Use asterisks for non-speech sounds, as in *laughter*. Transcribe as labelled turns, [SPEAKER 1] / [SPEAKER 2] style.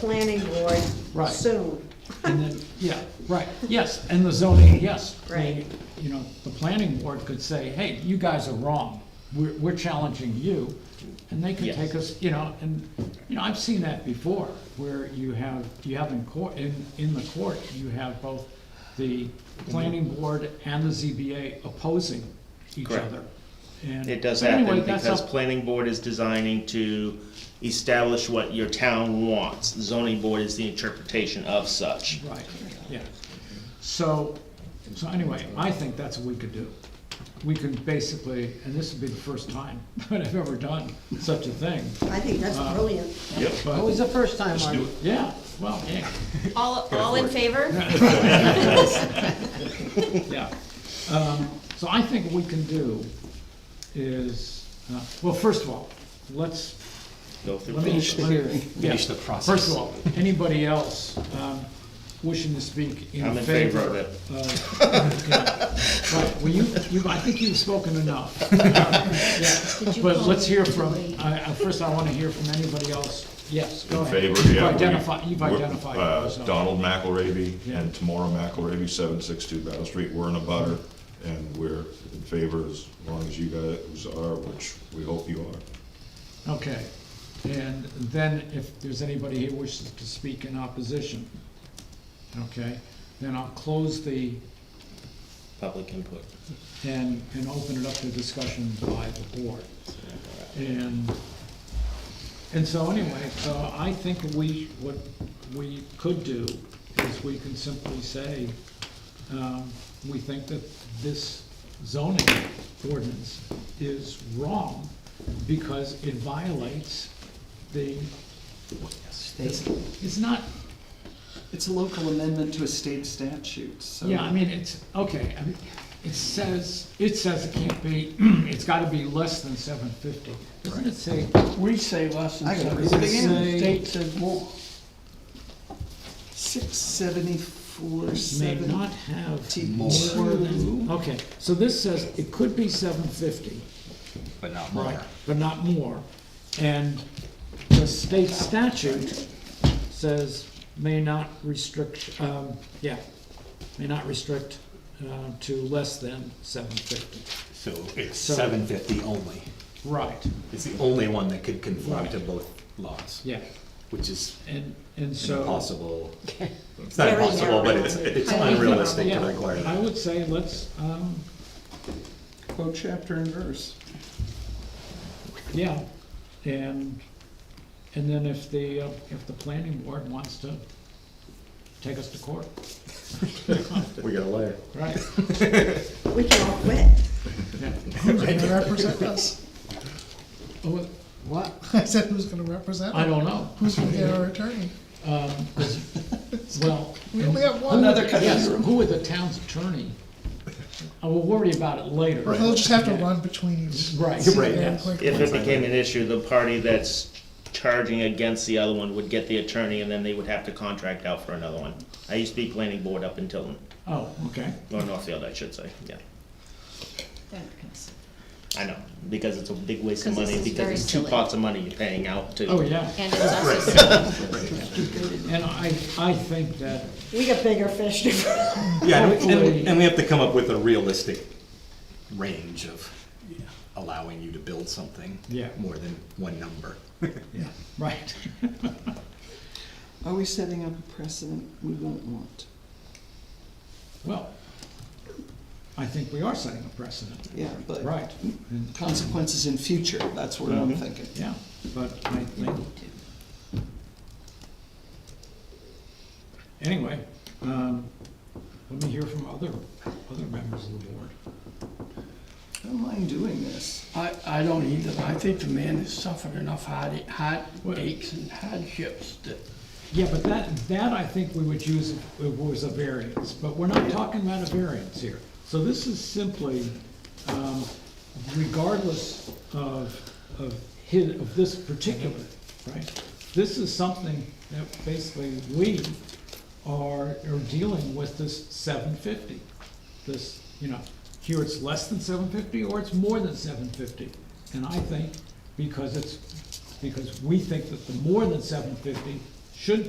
[SPEAKER 1] planning board
[SPEAKER 2] Right.
[SPEAKER 1] soon.
[SPEAKER 2] And then, yeah, right, yes, and the zoning, yes.
[SPEAKER 1] Right.
[SPEAKER 2] You know, the planning board could say, hey, you guys are wrong, we're, we're challenging you, and they could
[SPEAKER 3] Yes.
[SPEAKER 2] take us, you know, and, you know, I've seen that before, where you have, you have in court, in, in the court, you have both the planning board and the ZBA opposing each
[SPEAKER 3] Correct.
[SPEAKER 2] other. And-
[SPEAKER 3] It does
[SPEAKER 2] but anyway,
[SPEAKER 3] happen
[SPEAKER 2] that's
[SPEAKER 3] because
[SPEAKER 2] up-
[SPEAKER 3] planning board is designing to establish what your town wants. Zoning board is the interpretation of such.
[SPEAKER 2] Right, yeah. So, so anyway, I think that's what we could do. We can basically, and this would be the first time *laughs* that I've ever done such a thing,
[SPEAKER 1] I think that's
[SPEAKER 2] Wow.
[SPEAKER 1] brilliant.
[SPEAKER 3] Yep.
[SPEAKER 2] but,
[SPEAKER 4] Always the first time, Marty.
[SPEAKER 2] yeah, well, yeah,
[SPEAKER 5] All, all in favor?
[SPEAKER 2] yeah. Um, So I think what we can do is, uh, well, first of all, let's
[SPEAKER 3] Go through.
[SPEAKER 2] Let me-
[SPEAKER 3] process.
[SPEAKER 2] let me- yeah.
[SPEAKER 6] Finish the process.
[SPEAKER 2] First of all, anybody else um, wishing to speak in favor?
[SPEAKER 3] I'm in favor of it.
[SPEAKER 2] of- uh, yeah. Right, well, you, you, I think you've spoken enough. Yeah, But let's hear from, I, I, first I want to hear from anybody else. Yes, go
[SPEAKER 7] In
[SPEAKER 2] ahead.
[SPEAKER 7] favor,
[SPEAKER 2] You've
[SPEAKER 7] yeah. we-
[SPEAKER 2] identified, you've
[SPEAKER 7] we're,
[SPEAKER 2] identified
[SPEAKER 7] uh,
[SPEAKER 2] yourself.
[SPEAKER 7] Donald McElravy
[SPEAKER 2] Yeah.
[SPEAKER 7] and Tamara McElravy, seven six two Battle Street, we're in a butter, and we're in favor as long as you guys are, which we hope you are.
[SPEAKER 2] Okay, and then if there's anybody here wishes to speak in opposition, okay, then I'll close the,
[SPEAKER 3] Public input.
[SPEAKER 2] and, and open it up to discussion by the board. And, and so anyway, uh, I think we, what we could do is we can simply say, um, we think that this zoning ordinance is wrong because it violates the, it's, it's not,
[SPEAKER 8] It's a local amendment to a state statute, so.
[SPEAKER 2] Yeah, I mean, it's, okay, I mean, it says, it says it can't be, *clears throat* it's gotta be less than seven fifty. Doesn't it say,
[SPEAKER 4] We say less than
[SPEAKER 8] I gotta
[SPEAKER 4] seven,
[SPEAKER 8] read it again.
[SPEAKER 4] the state says more.
[SPEAKER 8] Six seventy-four,
[SPEAKER 2] may not
[SPEAKER 8] seven.
[SPEAKER 2] have
[SPEAKER 8] T-
[SPEAKER 2] more than, okay, so this says it could be seven fifty,
[SPEAKER 6] But not
[SPEAKER 2] right,
[SPEAKER 6] more.
[SPEAKER 2] but not more. And the state statute says may not restrict, um, yeah, may not restrict, uh, to less than seven fifty.
[SPEAKER 6] So it's
[SPEAKER 2] So-
[SPEAKER 6] seven fifty only.
[SPEAKER 2] Right,
[SPEAKER 6] It's the only one that could conform
[SPEAKER 2] Right.
[SPEAKER 6] to both laws.
[SPEAKER 2] yeah,
[SPEAKER 6] Which is
[SPEAKER 2] and, and
[SPEAKER 6] an
[SPEAKER 2] so.
[SPEAKER 6] impossible.
[SPEAKER 1] *laughs*
[SPEAKER 6] It's not
[SPEAKER 1] Very
[SPEAKER 6] impossible, but it's,
[SPEAKER 1] narrow. I
[SPEAKER 6] it's
[SPEAKER 1] think-
[SPEAKER 6] unrealistic to
[SPEAKER 2] Yeah,
[SPEAKER 6] require
[SPEAKER 2] I
[SPEAKER 6] that.
[SPEAKER 2] would say let's, um,
[SPEAKER 8] Quote chapter and verse.
[SPEAKER 2] yeah, and, and then if the, uh, if the planning board wants to take us to court,
[SPEAKER 6] We got a lawyer.
[SPEAKER 2] right?
[SPEAKER 1] We can all quit.
[SPEAKER 2] Yeah.
[SPEAKER 9] Who's gonna represent us? *laughs*
[SPEAKER 2] Oh, What?
[SPEAKER 9] I said, who's gonna represent
[SPEAKER 2] I
[SPEAKER 9] us?
[SPEAKER 2] don't know.
[SPEAKER 9] Who's gonna be our attorney?
[SPEAKER 2] Well,
[SPEAKER 9] We only have one.
[SPEAKER 8] Another cut
[SPEAKER 2] yes, who are the town's attorney? I will worry about it later.
[SPEAKER 9] They'll just have to run between you.
[SPEAKER 2] Right.
[SPEAKER 9] See
[SPEAKER 6] Right,
[SPEAKER 9] them
[SPEAKER 6] yes.
[SPEAKER 9] quick.
[SPEAKER 3] If it became an issue, the party that's charging against the other one would get the attorney and then they would have to contract out for another one. I used to be planning board up in Tilton,
[SPEAKER 2] Oh, okay,
[SPEAKER 3] or Northfield, I should say, yeah. I know, because it's a big waste of
[SPEAKER 5] 'Cause this
[SPEAKER 3] money,
[SPEAKER 5] is
[SPEAKER 3] because
[SPEAKER 5] very
[SPEAKER 3] it's two
[SPEAKER 5] silly.
[SPEAKER 3] pots of money you're paying out to.
[SPEAKER 2] oh, yeah,
[SPEAKER 5] And it's also seven.
[SPEAKER 2] and I, I think that,
[SPEAKER 1] We got bigger fish to fry.
[SPEAKER 6] Yeah, and we-
[SPEAKER 2] Hopefully-
[SPEAKER 6] and, and we have to come up with a realistic range of allowing you to build something.
[SPEAKER 2] Yeah.
[SPEAKER 6] More than one number.
[SPEAKER 2] right,
[SPEAKER 8] Are we setting up a precedent we won't want?
[SPEAKER 2] well, I think we are setting a precedent,
[SPEAKER 8] Yeah, but.
[SPEAKER 2] right? And-
[SPEAKER 8] Consequences in future, that's what
[SPEAKER 4] Mm-hmm.
[SPEAKER 8] I'm thinking.
[SPEAKER 2] Yeah, but I think. Anyway, um, let me hear from other, other members of the board.
[SPEAKER 8] I don't mind doing this.
[SPEAKER 4] I, I don't either, I think the man has suffered enough hard, hard aches and hardships that,
[SPEAKER 2] Yeah, but that, that I think we would use if it was a variance, but we're not talking about a variance here. So this is simply, um, regardless of, of his, of this particular, right? This is something that basically we are, are dealing with this seven fifty. This, you know, here it's less than seven fifty or it's more than seven fifty. And I think because it's, because we think that the more than seven fifty should